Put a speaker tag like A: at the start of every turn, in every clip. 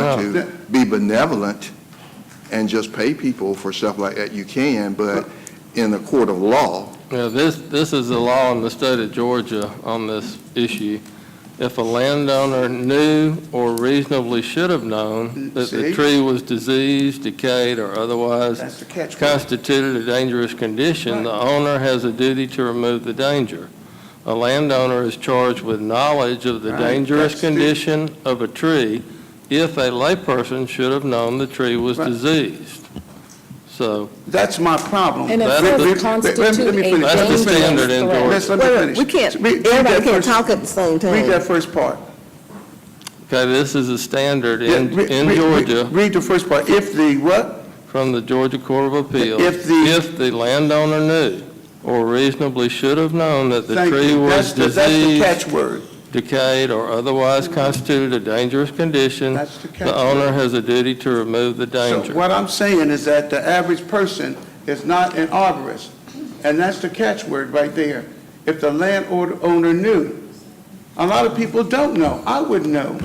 A: No.
B: to be benevolent and just pay people for stuff like that, you can, but in the court of law,
A: Yeah, this, this is the law in the state of Georgia on this issue. If a landowner knew or reasonably should have known that the
B: See?
A: tree was diseased, decayed, or otherwise
B: that's the catch.
A: constituted a dangerous condition, the owner has a duty to remove the danger. A landowner is charged with knowledge of the
B: Right,
A: dangerous
B: that's the-
A: condition of a tree if a layperson should have known the tree was
C: Right.
A: diseased. So,
C: That's my problem.
D: And it
A: That's
C: Let me- let
D: does
C: me- let me-
D: constitute a
C: let me finish.
A: That's the
D: dangerous
A: standard in
D: threat.
A: Georgia.
C: Let's- let me
E: Wait, wait,
C: finish.
E: we can't,
C: Read- read
E: everybody
C: that
E: can't
C: first-
E: talk at the same
C: Read
E: time.
C: that first part.
A: okay, this is a standard
C: Yeah,
A: in,
C: re-
A: in
C: re- re-
A: Georgia
C: Read the first part. If the what?
A: from the Georgia Court of Appeals.
C: If the-
A: landowner knew or reasonably should have known that the
C: Thank
A: tree
C: you.
A: was
C: That's the- That's
A: diseased,
C: the catchword.
A: decayed, or otherwise constituted a dangerous condition,
C: That's the
A: the
C: catchword.
A: owner has a duty to remove the
C: So
A: danger.
C: what I'm saying is that the average person is not an arborist, and that's the catchword right there. If the landowner knew, a lot of people don't know. I would know.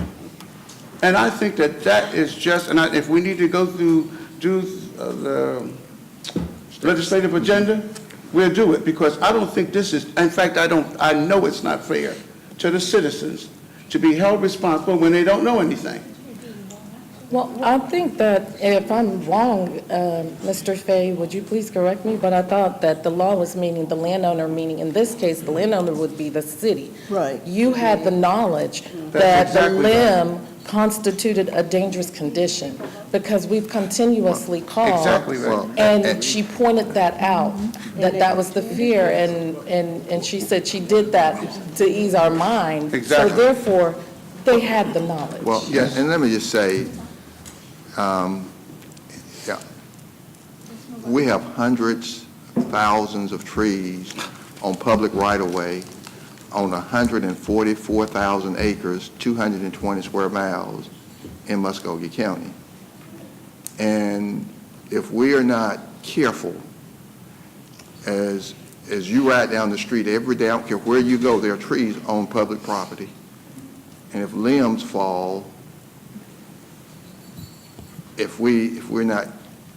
C: And I think that that is just, and I- if we need to go through, do uh, the legislative agenda, we'll do it, because I don't think this is, in fact, I don't, I know it's not fair to the citizens to be held responsible when they don't know anything.
D: Well, I think that, and if I'm wrong, um, Mr. Fay, would you please correct me? But I thought that the law was meaning the landowner, meaning in this case, the landowner would be the city.
E: Right.
D: You had the knowledge that
C: That's
D: the
C: exactly right.
D: limb constituted a dangerous condition because we've continuously called.
C: Exactly right. Mm-hmm.
B: Well,
D: And she pointed that out, that that was the fear, and, and, and she said she did that to ease our mind.
C: Exactly.
D: So therefore, they had the knowledge.
B: Well, yeah, and let me just say, um, yeah, we have hundreds, thousands of trees on public right-of-way on 144,000 acres, 220 square miles in Muskogee County. And if we are not careful, as, as you ride down the street every day, I don't care where you go, there are trees on public property. And if limbs fall, if we, if we're not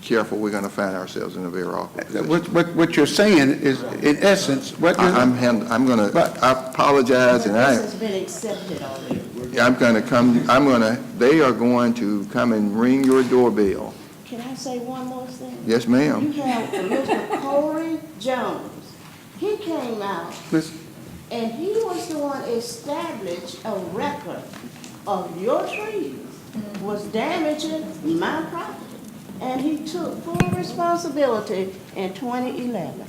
B: careful, we're going to find ourselves in a very awkward position.
C: Uh, What, what, what you're saying is, in essence, what you're...
B: I- I'm, hand- I'm going to,
C: But-
B: I apologize, and I,
F: This has been accepted already.
B: I'm going to come, I'm going to, they are going to come and ring your doorbell.
F: Can I say one more thing?
B: Yes, ma'am.
F: You have Mr. Corey Jones. He came out,
C: Miss-
F: and he was the one established a record of your trees was damaging my property. And he took full responsibility in 2011.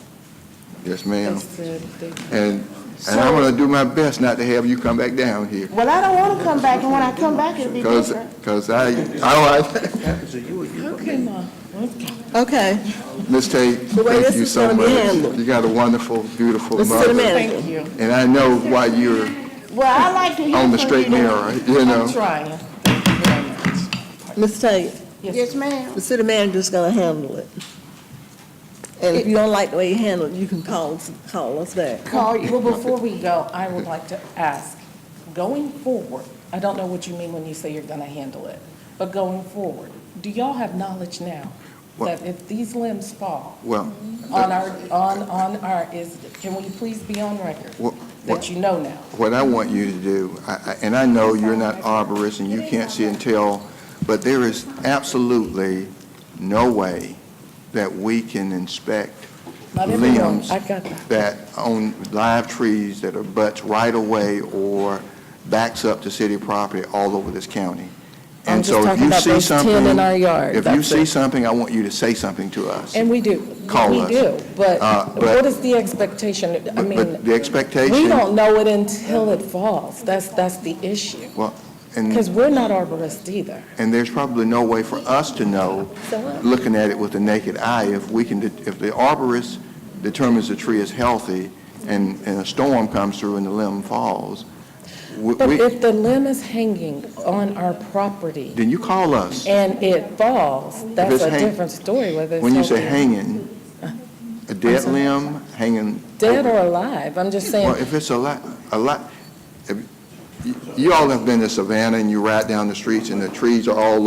B: Yes, ma'am.
D: That's the- the-
B: And, and I'm going to do my best not to have you come back down here,
F: Well, I don't want to come back, and when I come back, it'll be
B: because,
F: different.
B: because I, I don't like,
E: Okay,
B: Miss Tate,
E: The way
B: thank
E: this
B: you
E: is
B: so
E: gonna be
B: much.
E: handled.
B: You got a wonderful, beautiful
E: Mr. City
B: mother,
E: Manager.
D: Thank you.
B: and I know why you're
F: Well, I like to hear
B: on the
F: from
B: straight
F: you.
B: and narrow, you know.
D: I'm trying.
E: Ms. Tate,
F: Yes, ma'am.
E: the city manager's gonna handle it. And if you don't like the way you handle it, you can call, us- call us back.
D: Well, before we go, I would like to ask, going forward, I don't know what you mean when you say you're gonna handle it, but going forward, do y'all have knowledge now
B: Well-
D: that if these limbs fall
B: Well,
D: on our, on, on our, is, can we please be on record?
B: Well,
D: That you know now.
B: what I want you to do, I- I- and I know you're not arborist and you can't see and tell, but there is absolutely no way that we can inspect
D: Not everyone,
B: Limbs.
D: I got that.
B: that on live trees that are butts right away or backs up to city property all over this county.
D: I'm
B: And
D: just
B: so if
D: talking
B: you
D: about
B: see
D: those 10 in
B: something-
D: our yard,
B: If you
D: that's
B: see
D: it.
B: something, I want you to say something to us.
D: And we do.
B: Call
D: We
B: us.
D: do, but
B: Uh, but-
D: what is the expectation? I
B: But-
D: mean,
B: But the expectation.
D: we don't know it until it falls. That's, that's the issue.
B: Well, and-
D: Because we're not arborists either.
B: And there's probably no way for us to know, looking at it with the naked eye, if we can, de- if the arborist determines the tree is healthy and, and a storm comes through and the limb falls, we-
D: But
B: we-
D: if the limb is hanging on our property
B: then you call us.
D: and it falls,
B: it's
D: that's a
B: hang-
D: different story whether it's.
B: When you say
D: over-
B: hanging, a dead limb, hanging.
D: Dead
B: over-
D: or alive, I'm just
B: Well,
D: saying,
B: if it's a lot, a lot, if- you you all have been to Savannah and you ride down the streets and the trees are all